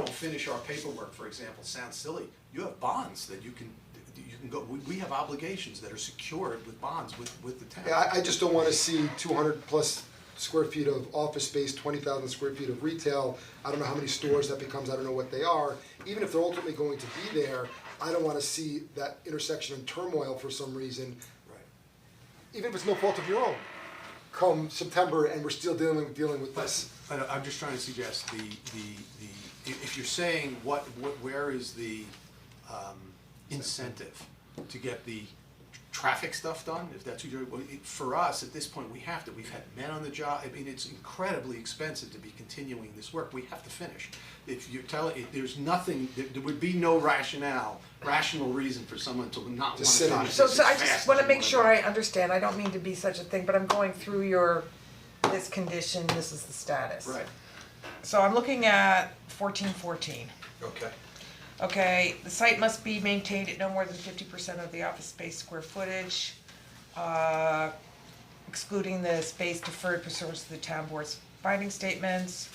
don't finish our paperwork, for example, sounds silly, you have bonds that you can, you can go, we, we have obligations that are secured with bonds with, with the town. Yeah, I, I just don't wanna see two hundred plus square feet of office space, twenty thousand square feet of retail. I don't know how many stores that becomes, I don't know what they are, even if they're ultimately going to be there, I don't wanna see that intersection in turmoil for some reason. Right. Even if it's no fault of your own, come September and we're still dealing, dealing with But, this. but I'm just trying to suggest the, the, the, if, if you're saying what, what, where is the, um, incentive to get the traffic stuff done, if that's what you're, well, it, for us, at this point, we have to, we've had men on the job, I mean, it's incredibly expensive to be continuing this work, we have to finish. If you're telling, if there's nothing, there, there would be no rationale, rational reason for someone to not wanna To sit on finish it. this So, so as I fast just as wanna you make wanna sure go. I understand, I don't mean to be such a thing, but I'm going through your, this condition, this is the status. Right, So I'm looking at fourteen fourteen, okay. okay, the site must be maintained at no more than fifty percent of the office space square footage, uh, excluding the space deferred pursuant to the town board's finding statements.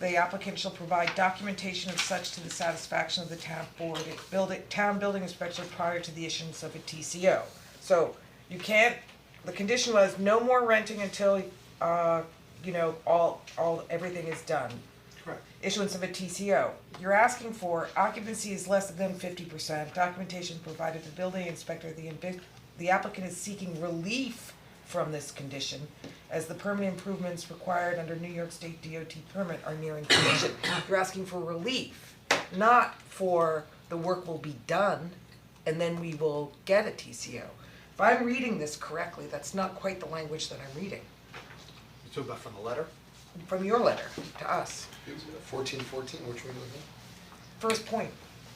The applicant shall provide documentation of such to the satisfaction of the town board, building, town building inspector prior to the issuance of a TCO. So you can't, the condition was no more renting until, uh, you know, all, all, everything is done. Correct. Issuance of a TCO. You're asking for occupancy is less than fifty percent, documentation provided to building inspector, the invi- the applicant is seeking relief from this condition as the permanent improvements required under New York State DOT permit are nearing completion. You're asking for relief, not for the work will be done and then we will get a TCO. If I'm reading this correctly, that's not quite the language that I'm reading You talking about from the letter? from your letter to us. Fourteen fourteen, which one was it? First point,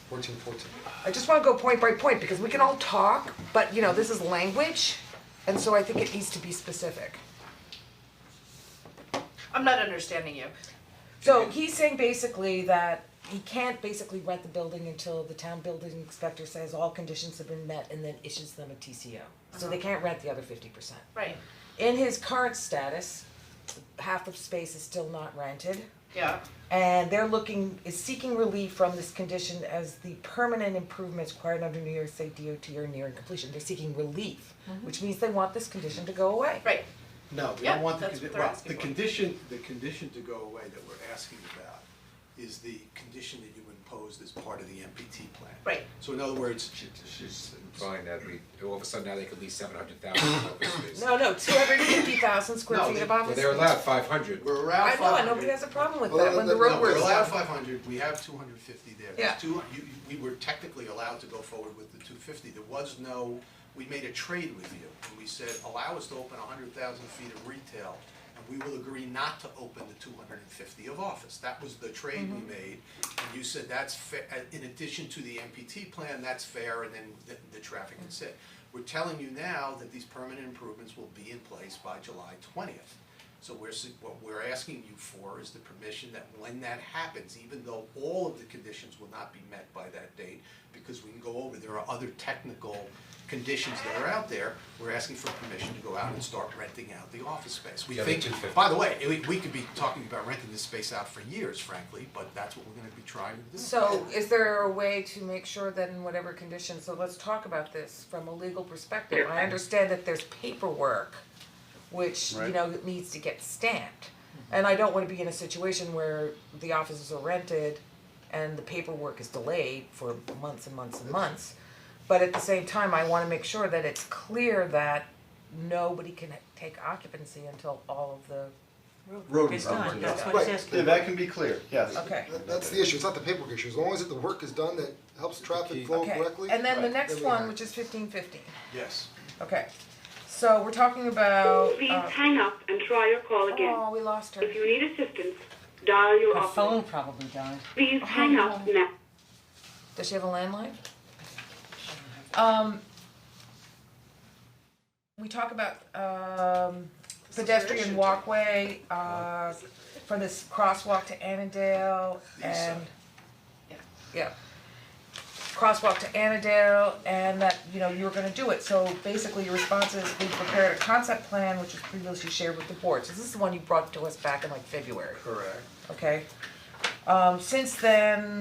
Fourteen fourteen. I just wanna go point by point, because we can all talk, but you know, this is language, and so I think it needs to be specific. I'm not understanding you. So he's saying basically that he can't basically rent the building until the town building inspector says all conditions have been met and then issues them a TCO. So they can't rent the other fifty percent. Right. In his current status, half of space is still not rented. Yeah. And they're looking, is seeking relief from this condition as the permanent improvements required under New York State DOT are nearing completion, they're seeking relief, which means they want this condition to go away. Right. No, we Yeah, don't want the, that's condi- what they're well, asking the for. condition, the condition to go away that we're asking about is the condition that you imposed as part of the MPT plan. Right. So in other words, She- She's implying that we, all of a sudden now they could lease seven hundred thousand office space. No, no, two hundred and fifty thousand square No, feet of they- office. Well, they're allowed five hundred. we're I around know, five and nobody hundred. has a problem with Well, that when the that- road no, works. we're allowed done. five hundred, we have two hundred fifty there. There's Yeah. Two, you, you- we were technically allowed to go forward with the two fifty, there was no, we made a trade with you. And we said, allow us to open hundred thousand feet of retail, and we will agree not to open the two hundred and fifty of office. That was the trade we made, and you said that's fair, uh, in addition to the MPT plan, that's fair, and then the, the traffic can sit. We're telling you now that these permanent improvements will be in place by July twentieth. So we're, s- what we're asking you for is the permission that when that happens, even though all of the conditions will not be met by that date, because we can go over, there are other technical conditions that are out there, we're asking for permission to go out and start renting out the office space. We Yeah, the think, 250. by the way, we, we could be talking about renting this space out for years frankly, but that's what we're gonna be trying to do. So is there a way to make sure that in whatever condition, so let's talk about this from a legal perspective, I understand that there's paperwork which, you know, needs to get stamped. And I don't wanna be in a situation where the offices are rented and the paperwork is delayed for months and months and months. But at the same time, I wanna make sure that it's clear that nobody can take occupancy until all of the, road It's done, that's what Right. it says. Yeah, that can be clear, yes. okay. That, that's the issue, it's not the paperwork issue, as long as the work is done, that helps traffic flow Okay, correctly. and then the Right. next Then we one, have- which is fifteen fifteen. Yes, Okay, so we're talking about, Please uh, hang up and try your call again. oh, we lost her. If you need assistance, dial your Her phone operator. probably died. Please hang up now. Does she have a landline? Um, we talk about, um, pedestrian walkway, uh, from this crosswalk to Annandale east and. side. Yeah. Crosswalk to Annandale and that, you know, you were gonna do it, so basically your response is, we prepared a concept plan which was previously shared with the board, so this is the one you brought to us back in like February correct. okay? Um, since then,